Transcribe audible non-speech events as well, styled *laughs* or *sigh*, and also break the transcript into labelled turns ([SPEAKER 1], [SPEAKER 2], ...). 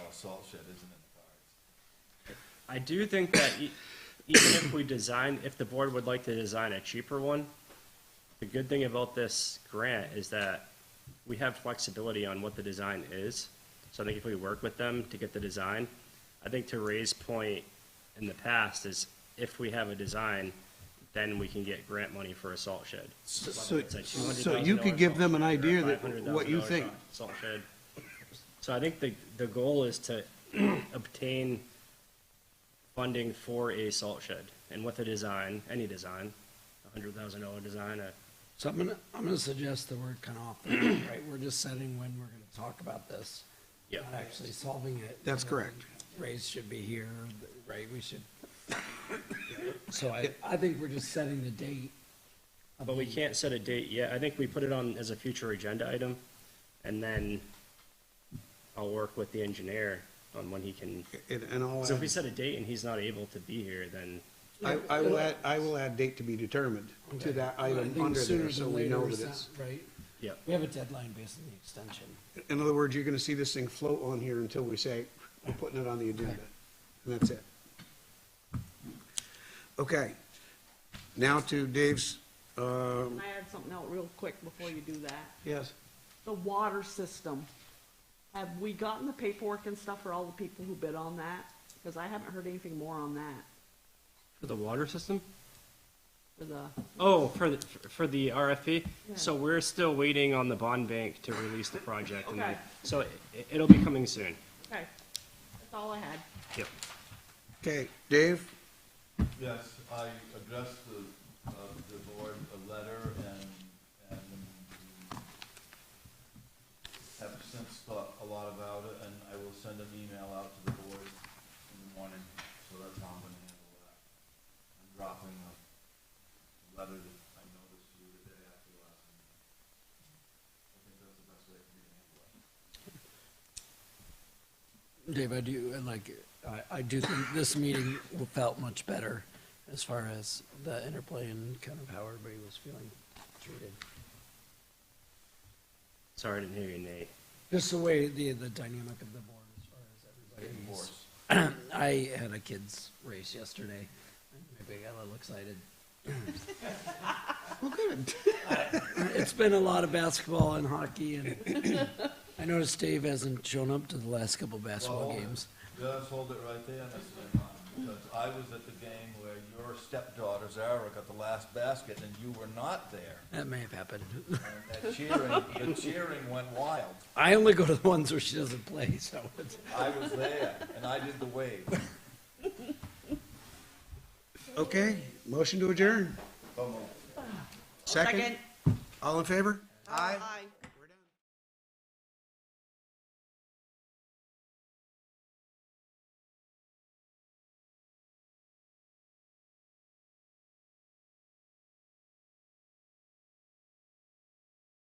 [SPEAKER 1] salt shed isn't in the cards.
[SPEAKER 2] I do think that e- even if we design, if the board would like to design a cheaper one, the good thing about this grant is that we have flexibility on what the design is. So I think if we work with them to get the design, I think to Ray's point in the past is if we have a design, then we can get grant money for a salt shed.
[SPEAKER 3] So-
[SPEAKER 2] It's like $200,000
[SPEAKER 3] so you could give them an
[SPEAKER 2] salt shed
[SPEAKER 3] idea
[SPEAKER 2] or
[SPEAKER 3] that
[SPEAKER 2] $500,000
[SPEAKER 3] what you think.
[SPEAKER 2] Salt shed. So I think the, the goal is to *clears throat* obtain funding for a salt shed and with a design, any design, a hundred thousand dollar design, a
[SPEAKER 4] So I'm gonna, I'm gonna suggest the word cut off, *clears throat* right? We're just setting when we're gonna talk about this.
[SPEAKER 2] Yep.
[SPEAKER 4] Not actually solving it.
[SPEAKER 3] That's correct.
[SPEAKER 4] Raise should be here, right? We
[SPEAKER 3] *laughs*
[SPEAKER 4] should. So I, I think we're just setting the date. of
[SPEAKER 2] But we
[SPEAKER 4] the-
[SPEAKER 2] can't set a date yet. I think we put it on as a future agenda item, and then I'll work with the engineer on when he can.
[SPEAKER 3] And, and I'll,
[SPEAKER 2] So if we
[SPEAKER 3] add-
[SPEAKER 2] set a date and he's not able to be here, then,
[SPEAKER 3] I, I will add, I will add date to be determined to that
[SPEAKER 4] I
[SPEAKER 3] item
[SPEAKER 4] think
[SPEAKER 3] under
[SPEAKER 4] sooner
[SPEAKER 3] there, so
[SPEAKER 4] than
[SPEAKER 3] we
[SPEAKER 4] later
[SPEAKER 3] know
[SPEAKER 4] is
[SPEAKER 3] that
[SPEAKER 4] not-
[SPEAKER 3] it's.
[SPEAKER 4] Right?
[SPEAKER 2] yep.
[SPEAKER 4] We have a deadline based on the extension.
[SPEAKER 3] In other words, you're gonna see this thing float on here until we say, we're putting it on the agenda, and that's it. Okay, now to Dave's, um,
[SPEAKER 5] Can I add something out real quick before you do that?
[SPEAKER 3] yes,
[SPEAKER 5] The water system. Have we gotten the paperwork and stuff for all the people who bid on that? Because I haven't heard anything more on that
[SPEAKER 2] For the water system?
[SPEAKER 5] for the,
[SPEAKER 2] Oh, for the, for the RFP?
[SPEAKER 5] Yeah.
[SPEAKER 2] So we're still waiting on the bond bank to release the project. and then-
[SPEAKER 5] Okay.
[SPEAKER 2] So it, it'll be coming soon.
[SPEAKER 5] okay, that's all I had.
[SPEAKER 2] Yep.
[SPEAKER 3] okay, Dave,
[SPEAKER 1] Yes, I addressed the, uh, the board a letter and, and have since thought a lot about it, and I will send an email out to the board in the morning, so that's how I'm gonna handle that. I'm dropping a letter that I noticed you the day after last meeting. I think that's the best way for me to handle it.
[SPEAKER 4] Dave, I do, and like, I, I do think this meeting felt much better as far as the interplay and kind of how everybody was feeling treated.
[SPEAKER 2] Sorry, I didn't hear you, Nate.
[SPEAKER 4] Just the way the, the dynamic of the board as far as everybody.
[SPEAKER 1] Divorce.
[SPEAKER 4] I had a kids race yesterday. Maybe I got a little excited. *laughs* It's been a lot of basketball and hockey and I noticed Dave hasn't shown up to the last couple basketball
[SPEAKER 1] Well,
[SPEAKER 4] games.
[SPEAKER 1] Just hold it right there, Mrs. Lehman, because I was at the game where your stepdaughter Zara got the last basket and you were not there.
[SPEAKER 4] That may have happened. *laughs*
[SPEAKER 1] And that cheering, the cheering went wild.
[SPEAKER 4] I only go to the ones where she doesn't play, so it's.
[SPEAKER 1] I was there and I did the wave.
[SPEAKER 3] okay, motion to adjourn,
[SPEAKER 1] Come on.
[SPEAKER 3] second, all in favor?
[SPEAKER 5] Aye.